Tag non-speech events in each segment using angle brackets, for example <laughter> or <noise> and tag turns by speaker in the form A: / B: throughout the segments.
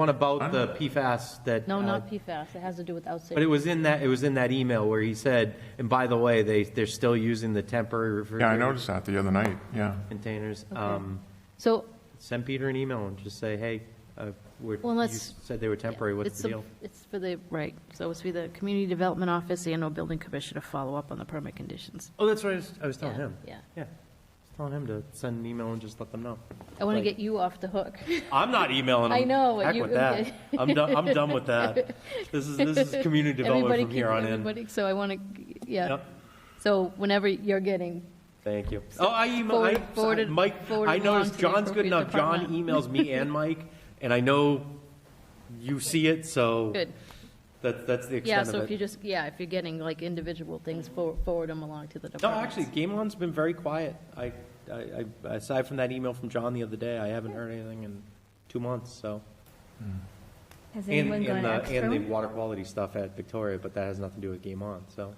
A: One about the PFAS that.
B: No,
A: uh,
B: not PFAS, it has to do with outside.
A: But it was in that, it was in that email where he said, and by the way, they, they're still using the temporary
C: Yeah, I
A: refrigerated
C: noticed that the other night, yeah.
A: containers.
B: Okay.
A: Um,
B: So
A: Send Peter an email and just say, hey, uh, we're,
B: Well,
A: you
B: let's-
A: said they were temporary, what's
B: It's
A: the
B: a-
A: deal?
B: It's for the, right, so it's for the Community Development Office and or Building Commission to follow up on the permit conditions.
A: Oh, that's right, I was- I was telling
B: Yeah,
A: him.
B: Yeah.
A: Yeah, I was telling him to send an email and just let them know.
B: I want to
A: Like-
B: get you off the hook.
A: I'm not emailing them.
B: I know,
A: Heck
B: you-
A: with that. I'm done, I'm done with
B: <laughs>
A: that. This is, this is community development
B: Everybody
A: from
B: keep-
A: here on in.
B: everybody- So I want to, yeah.
A: Yep.
B: So whenever you're getting,
A: Thank you. Oh, I email,
B: Forward-
A: I,
B: forwarded-
A: Mike,
B: forwarded
A: I
B: along to
A: noticed
B: the
A: John's good
B: appropriate
A: enough. John
B: department.
A: emails me and Mike, and I know you see it, so
B: good.
A: that, that's the
B: Yeah,
A: extent
B: so
A: of
B: if you
A: it.
B: just, yeah, if you're getting like individual things, for- forward them along to the
A: No,
B: department.
A: actually, Game On's been very quiet. I, I, I- aside from that email from John the other day, I haven't heard anything in two months, so.
D: Has
A: And,
D: anyone
A: and
D: gone
A: the,
D: extra?
A: and the water quality stuff at Victoria, but that has nothing to do with Game On, so.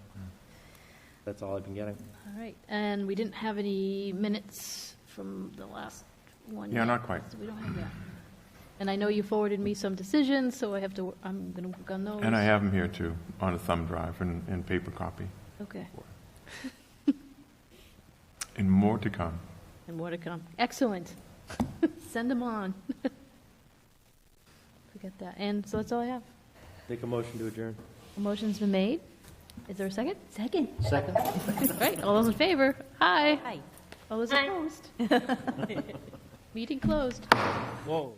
A: That's all I've been getting.
B: All right, and we didn't have any minutes from the last one.
C: Yeah,
B: yet,
C: not quite.
B: So we don't have that. And I know you forwarded me some decisions, so I have to, I'm going to work on those.
C: And I have them here too, on a thumb drive and, and paper copy,
B: Okay,
C: and more to come.
B: and more to come. Excellent. <laughs> Send them on. <laughs> Forget that. And so that's all I have.
A: Make a motion to adjourn.
B: A motion's been made. Is there a second?
D: Second.
A: Second?
B: Right, <laughs> all those in favor? Aye.
D: Hi.
B: All those opposed? <laughs> Meeting closed.
A: Whoa.